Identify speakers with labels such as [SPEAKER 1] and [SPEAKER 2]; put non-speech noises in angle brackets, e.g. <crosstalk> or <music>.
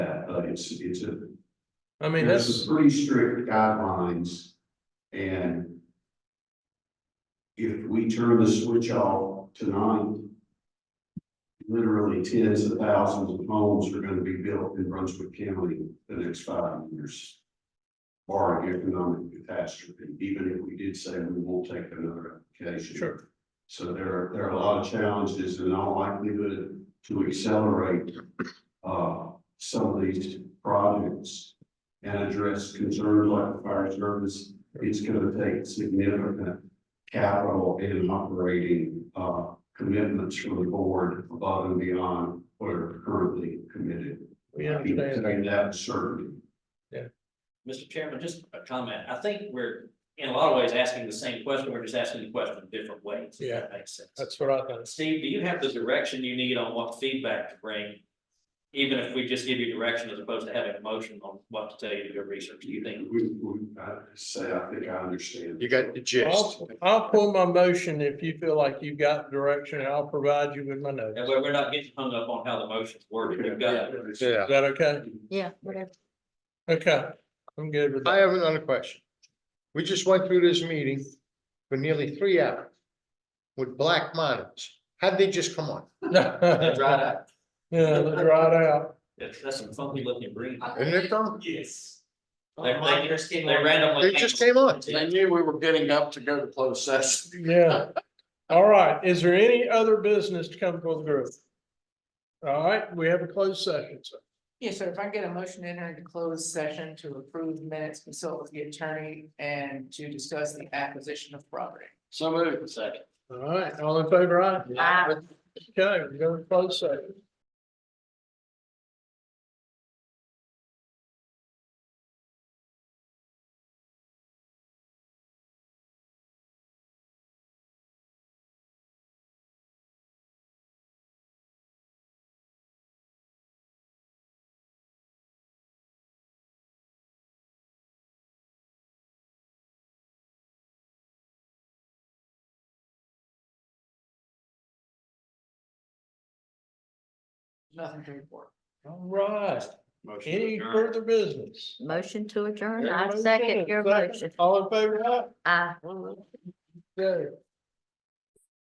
[SPEAKER 1] it's, it's a,
[SPEAKER 2] I mean,
[SPEAKER 1] there's
[SPEAKER 2] that's,
[SPEAKER 1] some pretty strict guidelines and if we turn the switch off tonight, literally tens of thousands of homes are gonna be built in Brunswick County the next five years. Barring economic catastrophe, even if we did say we won't take another application.
[SPEAKER 2] sure,
[SPEAKER 1] So there are, there are a lot of challenges in all likelihood to accelerate uh, some of these projects and address concerns like the fire service. It's gonna take significant capital and operating uh, commitments from the board above and beyond what are currently committed.
[SPEAKER 2] we
[SPEAKER 1] I can
[SPEAKER 2] understand.
[SPEAKER 1] say that certainly.
[SPEAKER 3] Mr. Chairman, just a comment. I think we're, in a lot of ways, asking the same question. We're just asking the question different ways. if that Makes sense.
[SPEAKER 2] That's what I think.
[SPEAKER 3] Steve, do you have the direction you need on what feedback to bring? Even if we just give you direction as opposed to having a motion on what to tell you to do research, do you think?
[SPEAKER 1] We, we, I say, I think I understand.
[SPEAKER 4] You got the gist.
[SPEAKER 2] I'll, I'll pull my motion if you feel like you've got direction, and I'll provide you with my notes.
[SPEAKER 3] And
[SPEAKER 2] Is
[SPEAKER 3] we're, we're not getting hung up on how the motion's worded. We've got,
[SPEAKER 4] Yeah.
[SPEAKER 2] that okay?
[SPEAKER 5] Yeah, whatever.
[SPEAKER 2] Okay, I'm good with
[SPEAKER 4] I
[SPEAKER 2] that.
[SPEAKER 4] have another question. We just went through this meeting for nearly three hours with black monitors. How'd they just come on?
[SPEAKER 2] <laughs>
[SPEAKER 3] It's right
[SPEAKER 2] Yeah,
[SPEAKER 3] out.
[SPEAKER 2] let's ride out.
[SPEAKER 3] That's, that's some funky looking green.
[SPEAKER 4] Isn't it dumb?
[SPEAKER 3] Yes. They, they, they randomly.
[SPEAKER 4] They just came on.
[SPEAKER 3] They
[SPEAKER 4] knew we were getting up to go to closed session.
[SPEAKER 2] Yeah. All right, is there any other business to come before the group? All right, we have a closed session, so.
[SPEAKER 6] Yeah, so if I get a motion to enter into closed session to approve minutes, consult with the attorney and to discuss the acquisition of property.
[SPEAKER 4] So moved.
[SPEAKER 3] Second.
[SPEAKER 2] All right, all in favor, aye?
[SPEAKER 5] Aye.
[SPEAKER 2] Okay, we're going to closed session.
[SPEAKER 6] Nothing to report.
[SPEAKER 2] All right,
[SPEAKER 3] Motion to
[SPEAKER 2] any
[SPEAKER 3] adjourn.
[SPEAKER 2] further business?
[SPEAKER 5] Motion to adjourn.
[SPEAKER 2] Yeah,
[SPEAKER 5] I
[SPEAKER 2] motion,
[SPEAKER 5] second your motion.
[SPEAKER 2] All in favor, aye?
[SPEAKER 5] Aye.
[SPEAKER 2] Okay.